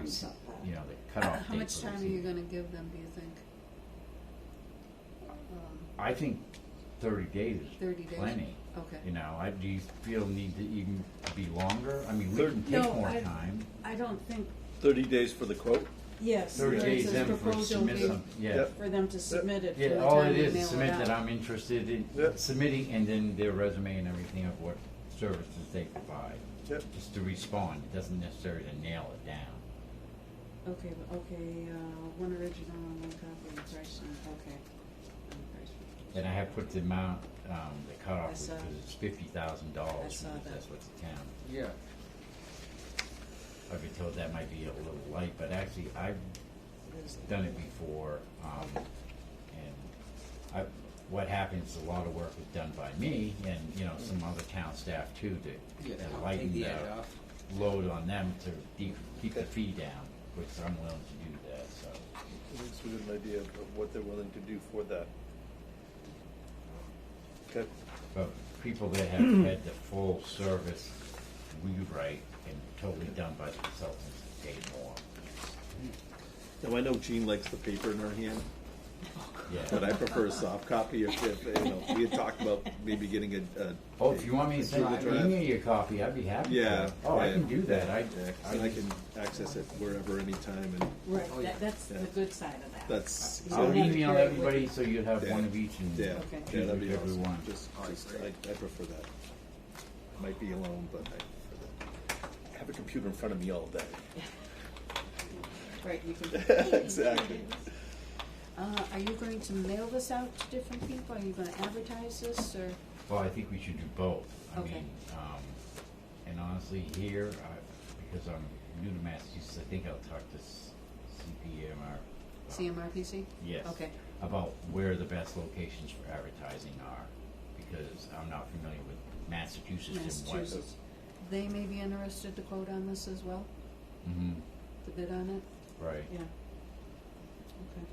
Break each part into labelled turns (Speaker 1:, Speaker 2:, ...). Speaker 1: was, you know, the cutoff date.
Speaker 2: How much
Speaker 1: for the
Speaker 2: time are you
Speaker 1: season.
Speaker 2: gonna give them, do you think? Um,
Speaker 1: I think thirty days
Speaker 2: Thirty
Speaker 1: is
Speaker 2: days?
Speaker 1: plenty, you
Speaker 2: Okay.
Speaker 1: know, I, do you feel need to even be longer? I mean, we can take
Speaker 2: No,
Speaker 1: more
Speaker 2: I-
Speaker 1: time.
Speaker 2: I don't think,
Speaker 3: Thirty days for the quote?
Speaker 2: yes.
Speaker 1: Thirty
Speaker 2: where it
Speaker 1: days
Speaker 2: says
Speaker 1: then for
Speaker 2: proposal
Speaker 1: submit
Speaker 2: date
Speaker 1: some, yeah.
Speaker 3: Yep.
Speaker 2: For them to submit it. from
Speaker 1: Yeah,
Speaker 2: the
Speaker 1: all
Speaker 2: time
Speaker 1: it
Speaker 2: we
Speaker 1: is,
Speaker 2: mail
Speaker 1: submit
Speaker 2: out.
Speaker 1: that I'm interested in
Speaker 3: Yep.
Speaker 1: submitting and then their resume and everything of what services they provide.
Speaker 3: Yep.
Speaker 1: Just to respond, it doesn't necessarily nail it down.
Speaker 2: Okay, but- okay, uh, one original and one copy of the price, and- okay. And price.
Speaker 1: And I have put the amount, um, the
Speaker 2: I
Speaker 1: cutoff, because
Speaker 2: saw-
Speaker 1: it's fifty thousand
Speaker 2: I
Speaker 1: dollars,
Speaker 2: saw
Speaker 1: because
Speaker 2: that.
Speaker 1: that's what the town.
Speaker 4: Yeah.
Speaker 1: I've been told that might be a little light, but actually, I've
Speaker 2: There's-
Speaker 1: done it before, um, and I, what happens, a lot of work is done by me and, you know, some other town staff too,
Speaker 4: Yeah,
Speaker 1: to to
Speaker 4: take
Speaker 1: lighten
Speaker 4: the
Speaker 1: the
Speaker 4: edge off.
Speaker 1: load on them to de- keep the
Speaker 3: Okay.
Speaker 1: fee down, which I'm willing to do that, so.
Speaker 3: It gives you an idea of of what they're willing to do for that. Okay,
Speaker 1: But people that have had the full service rewrite and totally done by the consultants pay more,
Speaker 3: now I know Jean likes the paper in her hand, but
Speaker 1: yeah.
Speaker 3: I prefer a soft copy if, if, you know, we had talked about maybe getting a, a.
Speaker 1: Oh, if you want me to send,
Speaker 3: Drive.
Speaker 1: email you a copy, I'd be happy to.
Speaker 3: Yeah.
Speaker 1: Oh, I
Speaker 3: yeah,
Speaker 1: can do that, I,
Speaker 3: yeah, 'cause
Speaker 1: I
Speaker 3: then I
Speaker 1: just-
Speaker 3: can access it wherever, anytime, and
Speaker 4: Oh,
Speaker 2: Right,
Speaker 4: yeah.
Speaker 2: that, that's the
Speaker 3: Yeah.
Speaker 2: good side of that.
Speaker 3: that's.
Speaker 2: You
Speaker 1: I'll
Speaker 2: don't have to
Speaker 1: email
Speaker 2: carry it with
Speaker 1: everybody
Speaker 2: you.
Speaker 1: so you have one of each and
Speaker 3: Yeah,
Speaker 2: Okay.
Speaker 3: yeah,
Speaker 1: choose
Speaker 3: that'd be
Speaker 1: whichever one.
Speaker 3: awesome. Just,
Speaker 4: All right,
Speaker 3: just, I,
Speaker 4: great.
Speaker 3: I prefer that. I Might be alone, but I prefer that. I have a computer in front of me all day.
Speaker 2: Right, you can.
Speaker 3: Exactly.
Speaker 2: Uh, are you going to mail this out to different people? Are you gonna advertise this, or?
Speaker 1: Well, I think we should do both. I
Speaker 2: Okay.
Speaker 1: mean, um, and honestly, here, I, because I'm new to Massachusetts, I think I'll talk to S- CPMR.
Speaker 2: CMRPC?
Speaker 1: Yes.
Speaker 2: Okay,
Speaker 1: About where the best locations for advertising are, because I'm not familiar with Massachusetts and what.
Speaker 2: Massachusetts. They may be interested to quote on this as well,
Speaker 1: hmm
Speaker 2: to bid on it?
Speaker 1: right.
Speaker 2: Yeah. Okay.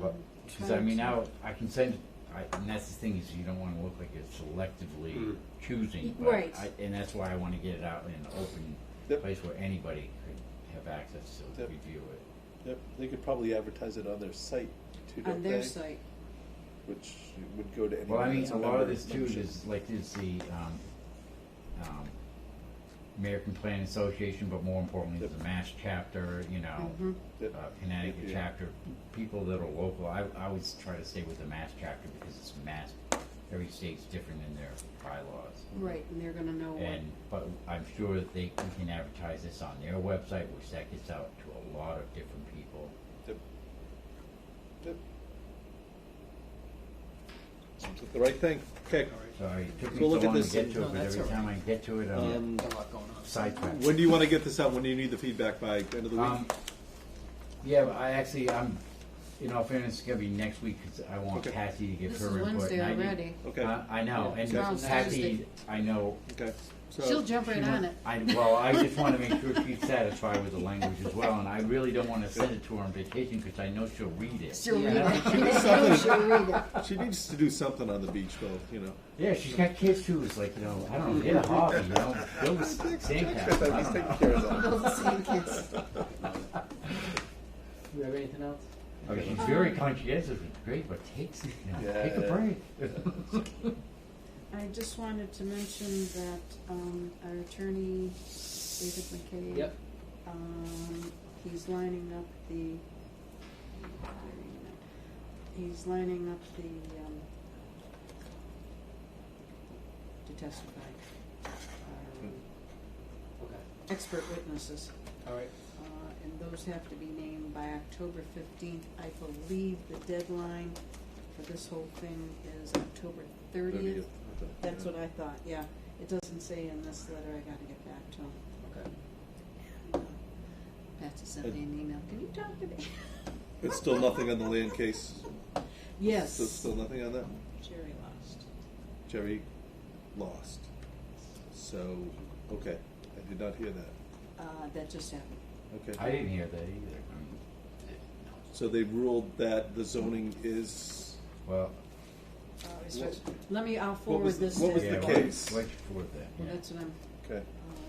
Speaker 1: But,
Speaker 2: Um,
Speaker 1: because I mean,
Speaker 2: trying
Speaker 1: now, I can send, I, and that's the thing is you don't wanna look like you're selectively
Speaker 3: Hmm.
Speaker 4: Mm.
Speaker 1: choosing,
Speaker 2: Y-
Speaker 1: but
Speaker 2: right.
Speaker 1: I, and that's why I wanna get it out in an open
Speaker 3: Yep.
Speaker 1: place where anybody could have access to
Speaker 3: Yep.
Speaker 1: review it.
Speaker 3: Yep, they could probably advertise it on their site too,
Speaker 2: to- On
Speaker 3: don't
Speaker 2: their
Speaker 3: they?
Speaker 2: site,
Speaker 3: Which would go to anyone.
Speaker 1: Well, I mean,
Speaker 3: that's
Speaker 1: a lot of
Speaker 3: member
Speaker 1: this too
Speaker 3: membership.
Speaker 1: is like is the, um, um, American Planning Association, but more importantly,
Speaker 3: Yep.
Speaker 1: the Mass chapter, you know,
Speaker 2: Mhm.
Speaker 3: Yep.
Speaker 1: uh, Connecticut
Speaker 3: Yeah.
Speaker 1: chapter, people that are local, I, I always try to stay with the Mass chapter because it's Mass, every state's different in their bylaws.
Speaker 2: right, and they're gonna
Speaker 3: Mm-hmm.
Speaker 2: know what,
Speaker 1: And, but I'm sure that they we can advertise this on their website, which that gets out to a lot of different people.
Speaker 3: Yep. Yep. Seems like The right thing, okay.
Speaker 4: All
Speaker 1: So
Speaker 4: right.
Speaker 1: it took me so
Speaker 3: We'll look at
Speaker 1: long to
Speaker 3: this
Speaker 1: get
Speaker 3: and-
Speaker 1: to
Speaker 4: No,
Speaker 1: it, but
Speaker 4: that's
Speaker 1: every
Speaker 4: all
Speaker 1: time I get to it, I'm
Speaker 3: Um,
Speaker 4: Got a lot going on.
Speaker 1: sidetracked.
Speaker 3: When do you wanna get this out, when do you need the feedback by, end of the
Speaker 1: Um,
Speaker 3: week?
Speaker 1: yeah, but I actually, I'm, in all fairness, it's gonna be next week, cause I want
Speaker 3: Okay.
Speaker 1: Patty to give
Speaker 2: This
Speaker 1: her
Speaker 2: is
Speaker 1: input. and
Speaker 2: Wednesday
Speaker 1: I didn't-
Speaker 2: already.
Speaker 3: Okay.
Speaker 1: Uh, I know, and
Speaker 2: Tomorrow's
Speaker 1: Patty,
Speaker 2: Thursday.
Speaker 1: I know.
Speaker 3: Okay, so.
Speaker 2: she'll jump right
Speaker 1: she wa-
Speaker 2: on it.
Speaker 1: I, well, I just wanna make sure she's satisfied with the language as well, and I really don't wanna send it to her on vacation, cause I know she'll read it.
Speaker 2: She'll read
Speaker 1: And I
Speaker 2: it.
Speaker 1: don't-
Speaker 2: She'll read it.
Speaker 3: She needs to do something on the beach, though. You know.
Speaker 1: Yeah, she's got kids too, it's like, you know, I don't know, get a hobby, you know, build a sandcastle, I
Speaker 3: He's
Speaker 1: don't know.
Speaker 3: taking care of that.
Speaker 2: Those same kids.
Speaker 4: Do we have anything else?
Speaker 1: I mean, she's very conscientious, it's great, but takes, you know,
Speaker 3: Yeah,
Speaker 1: take a
Speaker 3: yeah.
Speaker 1: break.
Speaker 2: I just wanted to mention that um, our attorney, David McCabe.
Speaker 4: Yep.
Speaker 2: Um, he's lining up the. He's lining up the. Um, to testify. Um,
Speaker 4: Okay.
Speaker 2: expert witnesses,
Speaker 4: All right.
Speaker 2: uh, and those have to be named by October fifteenth. I believe the deadline for this whole thing is October thirtieth. That's what I thought, yeah. It doesn't say in this letter, I gotta get back to him.
Speaker 4: Okay.
Speaker 2: Patsy sent me an email, can you talk to me?
Speaker 3: It's still nothing on the land case.
Speaker 2: Yes,
Speaker 3: There's still nothing on that.
Speaker 2: Jerry lost.
Speaker 3: Jerry lost. So, okay, I did not hear that.
Speaker 2: Uh, that just happened.
Speaker 3: Okay.
Speaker 1: I didn't hear that either, I mean,
Speaker 3: So they ruled that the zoning is.
Speaker 1: well,
Speaker 2: Uh,
Speaker 3: What-
Speaker 2: Let me, I'll
Speaker 3: was
Speaker 2: forward
Speaker 3: the-
Speaker 2: this to.
Speaker 3: what was the
Speaker 1: yeah,
Speaker 3: case?
Speaker 1: why, why'd you forward that?
Speaker 2: Well,
Speaker 1: Yeah.
Speaker 2: that's what I'm,
Speaker 3: Okay.
Speaker 2: um,